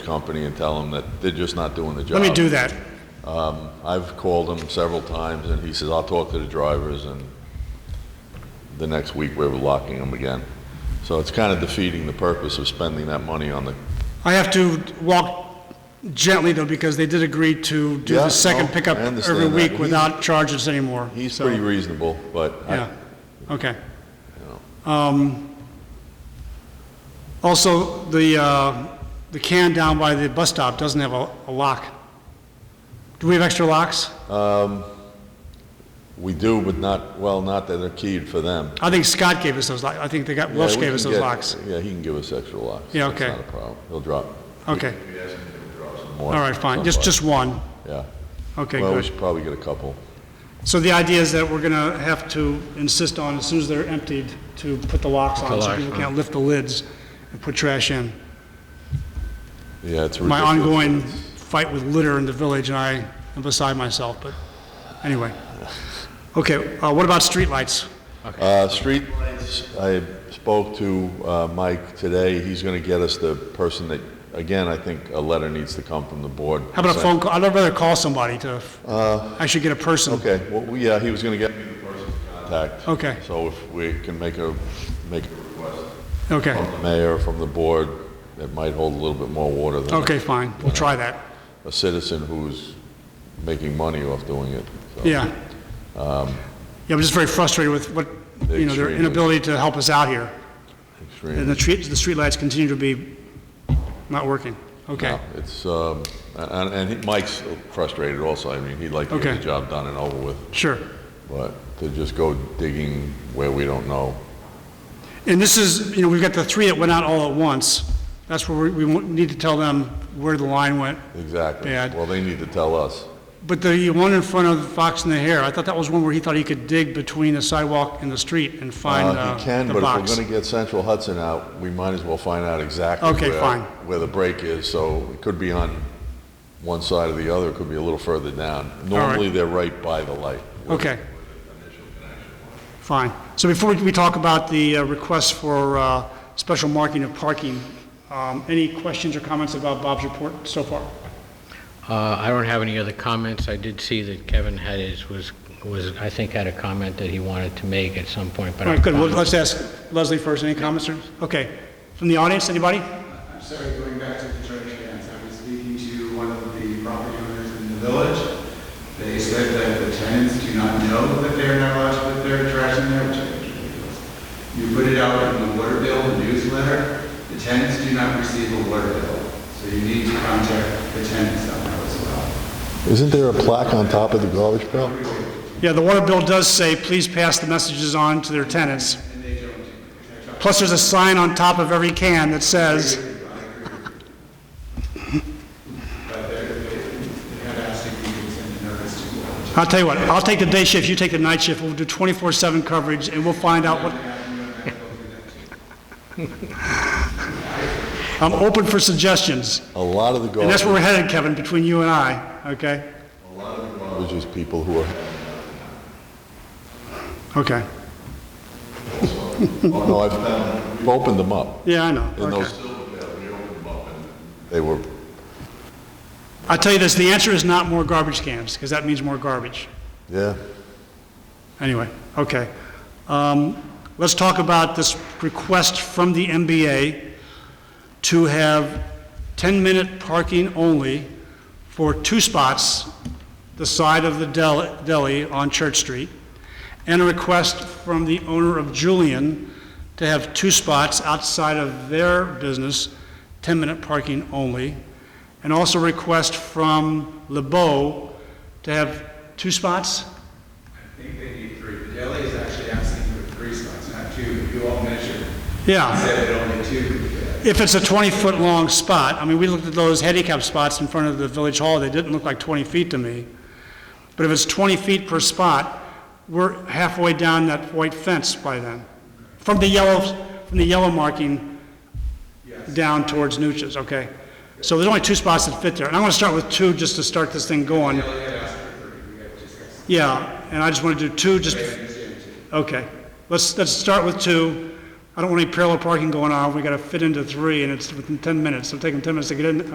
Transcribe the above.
company and tell them that they're just not doing the job. Let me do that. I've called him several times, and he says, "I'll talk to the drivers," and the next week, we're locking them again. So it's kind of defeating the purpose of spending that money on the, I have to walk gently though, because they did agree to do Yeah, the second no, pickup I understand every that. week without charges anymore. he's so- pretty reasonable, but I- Yeah, okay. Um, Also, the, uh, the can down by the bus stop doesn't have a a lock. Do we have extra locks? we do, but not, well, not that they're keyed for them. I think Scott gave us those locks, I think they got, Yeah, Welch we gave can us those get- locks. Yeah, he can give us extra locks. Yeah, That's okay. not a problem. He'll drop. Okay, we ask him to draw some all more. right, fine, just, just one, Yeah. okay, Well, we good. should probably get a couple. So the idea is that we're gonna have to insist on, as soon as they're emptied, to put the locks on, so locks people on. can't lift the lids and put trash in. Yeah, it's my ridiculous. ongoing fight with litter in the village, and I am beside myself, but anyway. Okay, uh, what about streetlights? Uh, street lights, I spoke to uh, Mike today. He's going to get us the person that, again, I think a letter needs to come from the board. How about a phone call? I'd rather call somebody to, I should get a person. Okay, well, we- yeah, he was going to get me the person to contact. Okay. So if we can make a, make a request Okay, from the mayor, from the board, that might hold a little bit more water than okay, fine, we'll try that, a citizen who's making money off doing it. so. yeah. Yeah, I'm just very frustrated with what, you know, their Extremely. inability to help us out here, Extreme. and the street, the streetlights continue to be not working. Okay, No, It's, um, and, and he- Mike's frustrated also, I mean, he'd like to get Okay. the job done and over with, sure. but to just go digging where we don't know. And this is, you know, we've got the three that went out all at once, that's where we, we need to tell them where the line went, Exactly. Bad. Well, they need to tell us. But the one in front of Fox and the Hare, I thought that was one where he thought he could dig between the sidewalk and the street and find Uh, uh, He can, the but if we're box. gonna get Central Hudson out, we might as well find out exactly Okay, where- fine. where the break is, so it could be on one side or the other, it could be a little further down. right. Normally, they're right by the light. Okay. Fine. So before we talk about the uh, request for uh, special marking of parking, um, any questions or comments about Bob's report so far? Uh, I don't have any other comments. I did see that Kevin had his, was, was, I think had a comment that he wanted to make at some point, but. All I right, good. Well, found- let's ask Leslie first. Any comments, sir? Okay. From the audience, anybody? I'm sorry, going back to the trash cans, I was speaking to one of the property owners in the village. They said that the tenants do not know that they're not allowed to put their trash in their trash cans. You put it out in the water bill, the newsletter, the tenants do not receive a water bill. So you need to contact the tenants on that as well. Isn't there a plaque on top of the garbage pail? Yeah, the water bill does say, please pass the messages on to their tenants. Plus, there's a sign on top of every can that says, But they're, they had asked if you could send a notice to the I'll tell you what, I'll take the day shift, you take the night shift, we'll do 24/7 coverage, and we'll find out what... I'm open for suggestions, A lot of the and that's where we're garbage, headed, Kevin, between you and I, okay? which is people who are Okay, Oh, no, I've, found- we've opened them up. yeah, I know, In okay. those, we opened them up and they were, I'll tell you this, the answer is not more garbage cans, because that means more garbage. yeah. Anyway, okay. Um, Let's talk about this request from the MBA to have 10-minute parking only for two spots, the side of the del- deli on Church Street, and a request from the owner of Julian to have two spots outside of their business, 10-minute parking only, and also a request from LeBeau to have two spots? I think they need three. The deli is actually asking for three spots, not two. You all measured. Yeah. Said that only two could fit. If it's a 20-foot-long spot, I mean, we looked at those handicap spots in front of the village hall, they didn't look like 20 feet to me. But if it's 20 feet per spot, we're halfway down that white fence by then, from the yellow, from the yellow marking down towards Nuches, okay? So there's only two spots that fit there, and I'm gonna start with two just to start this thing going. Yeah, and I just wanna do two just... Okay, let's, let's start with two. I don't want any parallel parking going on, we gotta fit into three, and it's within 10 minutes, it'll take them 10 minutes to get in,